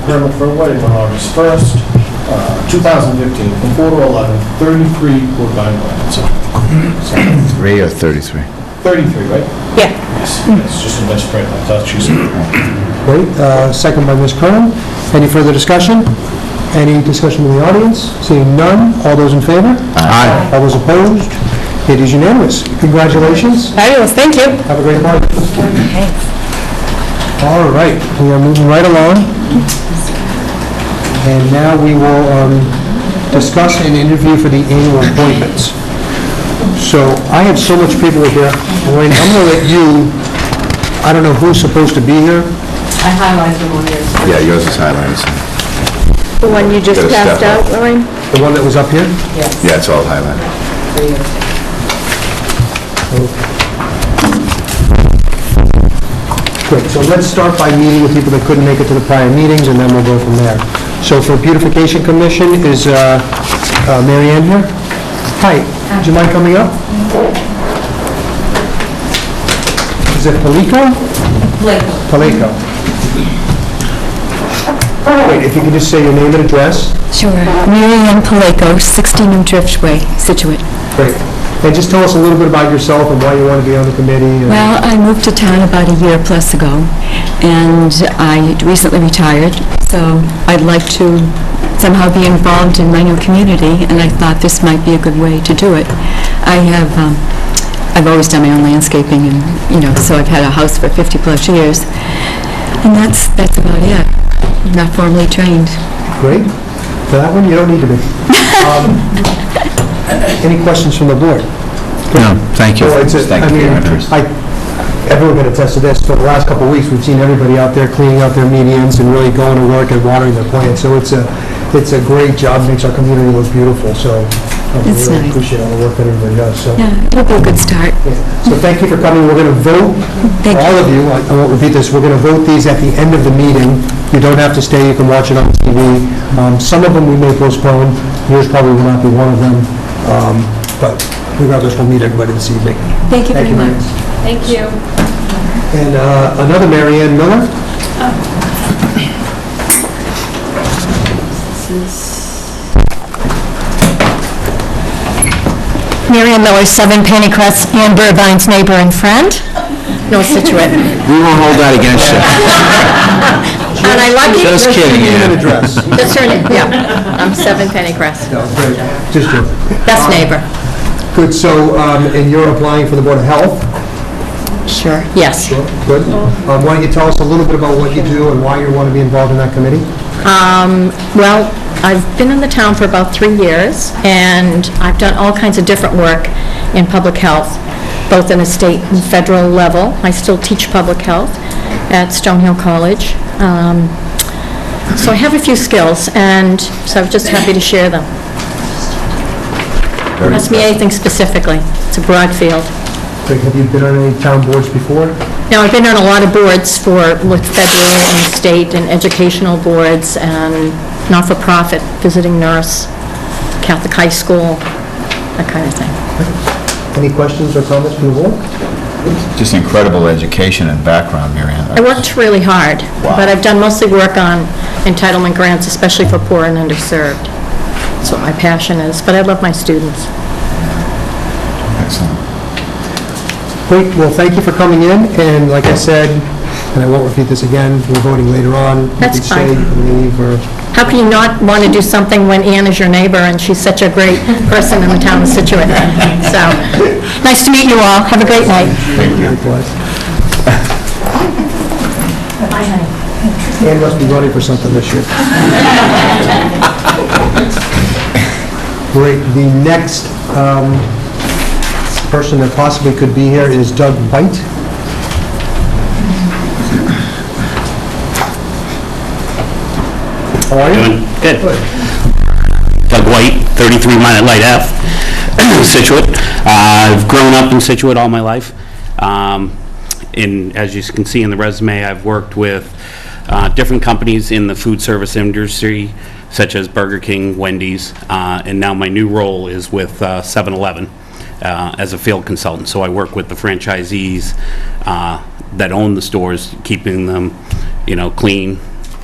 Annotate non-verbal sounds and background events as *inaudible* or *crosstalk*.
permit for a wedding on August 1st, uh, 2015, from 4 to 11, 33 Woodbine Lane. So- so, Three or 33? 33, right? Yeah. Yes, it's just a misprint, I thought she said. Wait, uh, second by Ms. Curran. Any further discussion? Any discussion in the audience? Seeing none, all those in favor? Aye. All those opposed? It is unanimous. Congratulations, Fabulous, thank you. have a great party. All right, we are moving right along. And now we will um, discuss an interview for the annual appointments. So I have so much people here, Lorraine, I'm going to let you, I don't know who's supposed to be here, I highlighted them on yours. Yeah, yours is highlighted. The one you just Gotta step passed up. out, Lorraine? the one that was up here. Yeah, it's all highlighted. for you. Great, so let's start by meeting with people that couldn't make it to the prior meetings, and then we'll go from there. So for Beautification Commission, is uh, uh, Mary Ann here? Hi, do you mind coming up? Is it Palico? Blake. Palico. Wait, if you could just say your name and address. Sure. Mary Ann Palaco, 60 New Driftway, Situate. Great. And just tell us a little bit about yourself and why you want to be on the committee. and- Well, I moved to town about a year plus ago, and I recently retired, so I'd like to somehow be involved in my new community, and I thought this might be a good way to do it. I have, um, I've always done my own landscaping, and, you know, so I've had a house for 50-plus years, and that's, that's about it. I'm Not formally trained. Great. For that one, you don't need to be. Um, Any questions from the board? No, thank you. Well, Oh, it's a- I Thank you mean, for your interest. I, everyone can attest to this, for the last couple of weeks, we've seen everybody out there cleaning out their medians and really going to work and watering their plants, so it's a, it's a great job, makes our community look beautiful, so uh, we It's really nice. appreciate all the work that everybody does, so. Yeah, it'll be a good start. So thank you for coming, we're going to vote, Thank all of you, I I won't repeat this, we're going to vote these at the end of the meeting. You don't have to stay, you can watch it on TV. Um, Some of them we may postpone, yours probably will not be one of them, Um, but regardless, we'll meet everybody this evening. Thank you very much. Thank you. And uh, another Mary Ann Miller? Mary Ann Miller, 7 Pennycrest, Ann Burbine's neighbor and friend, North *laughs* Situate. We won't hold that against you. And I like it. Just kidding, Name and Ann. address. That's her name, yeah. I'm Seven Penny Crest, No, great. Just joking. best neighbor. Good, so, um, and you're applying for the Board of Health? Sure. Yes. Good. Um, Why don't you tell us a little bit about what you do and why you want to be involved in that committee? Um, Well, I've been in the town for about three years, and I've done all kinds of different work in public health, both in a state and federal level. I still teach public health at Stonehill College. Um, So I have a few skills, and so I'm just happy to share them. Very Ask me anything specifically. It's a broad field. Like, Have you been on any town boards before? Now, I've been on a lot of boards for, with federal and state and educational boards and not-for-profit, visiting nurse, Catholic high school, that kind of thing. Any questions or comments from the board? Just incredible education and background, Mary Ann. I worked really hard, Wow. but I've done mostly work on entitlement grants, especially for poor and underserved. That's what my passion is, but I love my students. Excellent. Great, well, thank you for coming in, and like I said, and I won't repeat this again, we're voting later on. That's You fine. can stay, you can leave, or... How can you not want to do something when Ann is your neighbor and she's such a great person in the town of Situate? So, nice to meet you all. Have a great night. Likewise. Ann must be running for something this year. Great, the next um, person that possibly could be here is Doug White. How are you? Doing good. Doug White, 33 Minute Light F, *clears throat* Situate. Uh, I've grown up in Situate all my life. Um, And as you can see in the resume, I've worked with uh, different companies in the food service industry, such as Burger King, Wendy's, uh, and now my new role is with uh, 7-Eleven uh, as a field consultant. So I work with the franchisees uh, that own the stores, keeping them, you know, clean,